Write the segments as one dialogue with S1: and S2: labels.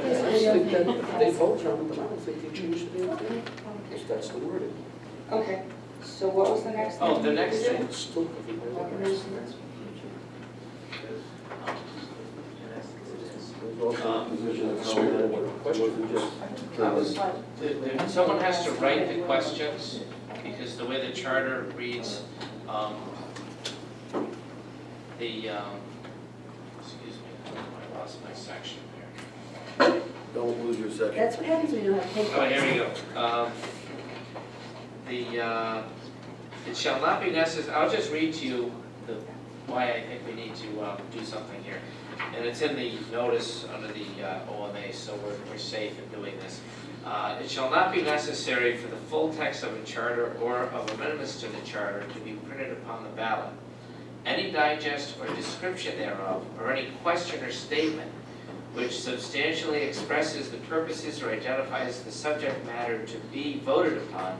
S1: think that they both are, but I don't think they changed the name. Because that's the wording.
S2: Okay, so what was the next thing?
S3: Oh, the next thing.
S1: It's still everywhere.
S3: I was- the- the- Someone has to write the questions, because the way the charter reads, um, the, um, excuse me, I lost my section there.
S4: Don't lose your second.
S5: That's what happens when you don't have
S3: Oh,
S5: paper.
S3: here we go. Um, The, uh, it shall not be necessary, I'll just read to you the, why I think we need to um, do something here. And it's in the notice under the uh, OMA, so we're, we're safe in doing this. Uh, It shall not be necessary for the full text of a charter or of amendments to the charter to be printed upon the ballot. Any digest or description thereof, or any question or statement which substantially expresses the purposes or identifies the subject matter to be voted upon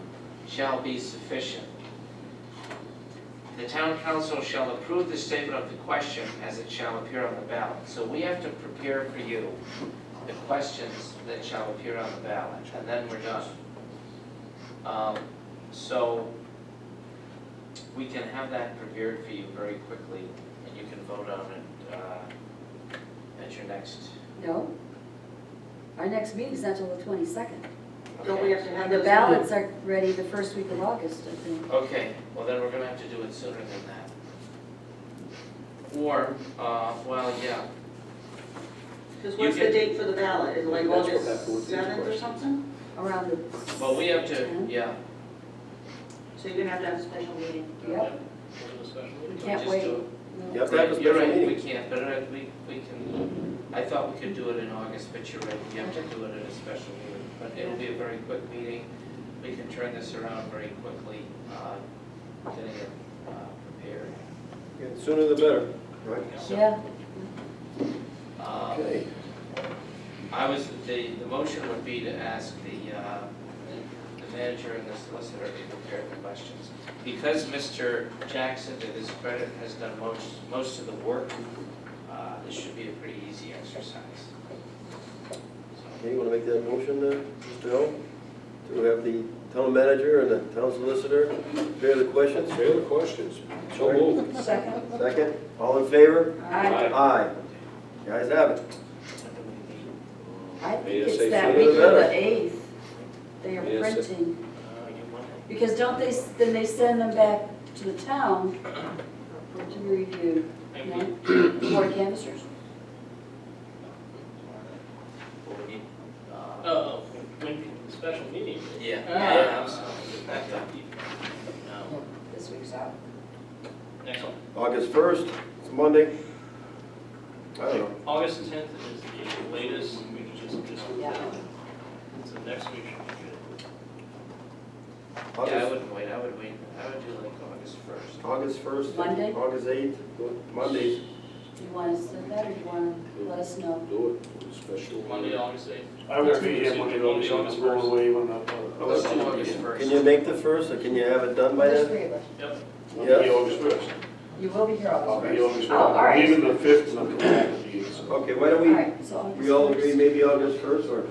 S3: shall be sufficient. The town council shall approve the statement of the question as it shall appear on the ballot. So we have to prepare for you the questions that shall appear on the ballot, and then we're done. Um, So we can have that prepared for you very quickly, and you can vote on it uh, at your next
S5: No. Our next meeting's not till the twenty-second.
S2: Don't we have to have
S5: And the
S2: those?
S5: ballots are ready the first week of August, I think.
S3: Okay, well then we're gonna have to do it sooner than that. Or, uh, well, yeah,
S2: Because what's
S3: You
S2: the
S3: can-
S2: date for the ballot, is it like
S1: That's what happened
S2: August
S1: with these
S2: seventh or
S1: questions.
S2: something?
S5: Around the.
S3: well, we have to,
S5: 10th.
S3: yeah.
S2: So you're gonna have to have a special meeting.
S5: Yep, we can't wait.
S4: You have to have a
S3: Right, you're
S4: special
S3: right, we
S4: meeting.
S3: can't, but uh, we, we can, I thought we could do it in August, but you're right, we have to do it at a special meeting. But it'll be a very quick meeting, we can turn this around very quickly, uh, getting it uh, prepared.
S4: And Sooner the better. Right.
S3: So,
S5: Yeah,
S3: uh,
S4: Okay.
S3: I was, the, the motion would be to ask the, uh, the manager and the solicitor to prepare the questions. Because Mr. Jackson, to his credit, has done most, most of the work, uh, this should be a pretty easy exercise.
S4: Okay, you want to make that motion, uh, Mr. Hill? To have the town manager and the town solicitor prepare the questions?
S6: Any other questions? So moved.
S5: second.
S4: Second, all in favor?
S5: I,
S4: Aye. The ayes have it.
S5: I think it's that
S6: ASAP.
S5: week of the eighth. They are
S6: ASAP.
S5: printing.
S3: Uh, you want it?
S5: Because don't they, s- then they send them back to the town to be reviewed,
S3: And we-
S5: no? Board of canvassers?
S3: Well, we need, uh,
S7: Oh, when, special meeting.
S3: Yeah,
S7: Ah.
S3: yeah, I'm sorry. Not that deep. No.
S5: This week's out.
S7: Next one.
S4: August 1st, it's Monday. I don't know.
S7: August tenth is the latest, we can just, just,
S5: Yeah.
S7: so next week should be
S3: Yeah, I
S4: August,
S3: wouldn't wait, I would wait, I would do like August first.
S4: August 1st.
S5: Monday?
S4: August 8th, Mondays.
S5: Do you want us to send that or do you want to let us know?
S6: Do it, special.
S7: good. Monday, August eighth.
S8: I will be here Monday,
S7: Monday,
S8: August,
S7: August
S8: I'm going
S7: first.
S8: away when, uh,
S3: Oh, Let's do August first.
S4: Can you make the 1st, or can you have it done by
S5: There's
S4: then?
S5: three of us.
S7: Yep.
S8: I'll be
S4: Yes.
S8: August first.
S5: You will be here
S8: I'll
S5: August
S8: be
S5: first.
S8: August first.
S5: Oh, all right.
S8: Even the fifth, and I'm coming back to you, so.
S4: Okay, why
S5: All
S4: don't we,
S5: right, so August
S4: we all
S5: first.
S4: agree maybe August 1st, or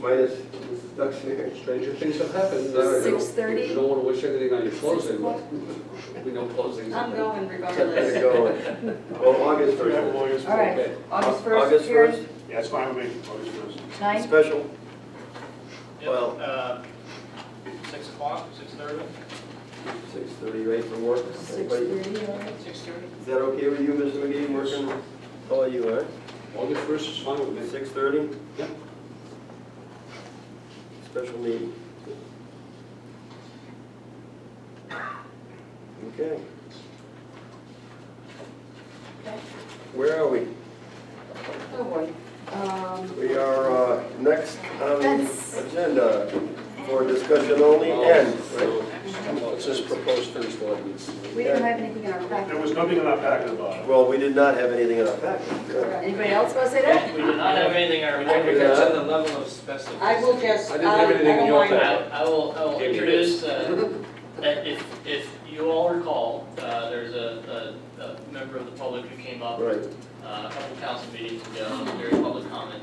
S4: minus Mrs. Duxbury?
S6: Stranger things have happened. I don't know.
S5: 6:30?
S6: You don't want to wish anything on your
S5: Six
S6: closing.
S5: o'clock?
S6: We know closings.
S2: I'm going
S4: Let
S2: regardless.
S4: it go. Well, August
S8: We have
S4: 1st.
S8: August
S5: All right,
S8: first.
S5: August
S4: August
S5: first, Karen,
S4: 1st,
S8: Yeah, it's fine with me, August first.
S5: nine,
S4: special.
S7: Yep,
S4: Well-
S7: uh, Six o'clock, six thirty?
S4: Six thirty, right for work?
S5: six
S4: Everybody-
S5: thirty, all right.
S3: Six thirty?
S4: Is that okay with you, Mr. McGee, working? How are you, all right?
S6: August first is fine with me.
S4: Six thirty?
S6: Yep.
S4: Special meeting. Okay. Where are we?
S5: Oh, boy. Um,
S4: We are, uh, next on the
S5: Fence.
S4: agenda for discussion only and, right?
S6: Oh, It's just proposed finished ordinance.
S5: We don't have anything in our
S8: There
S5: packet.
S8: was nothing in our packet about it.
S4: Well, we did not have anything in our packet.
S5: Anybody else want to say that?
S7: We did not have anything in our.
S3: I think that's on the level of specificity.
S2: I will just,
S6: I
S2: I
S6: didn't have
S2: I
S6: anything in
S2: don't
S6: your
S2: mind
S6: packet.
S2: it.
S7: I I will, I will
S6: Give me
S7: introduce, uh, that if, if you all recall, uh, there's a, a, a member of the public who came up
S4: Right.
S7: uh, a couple council meetings ago, during public comment,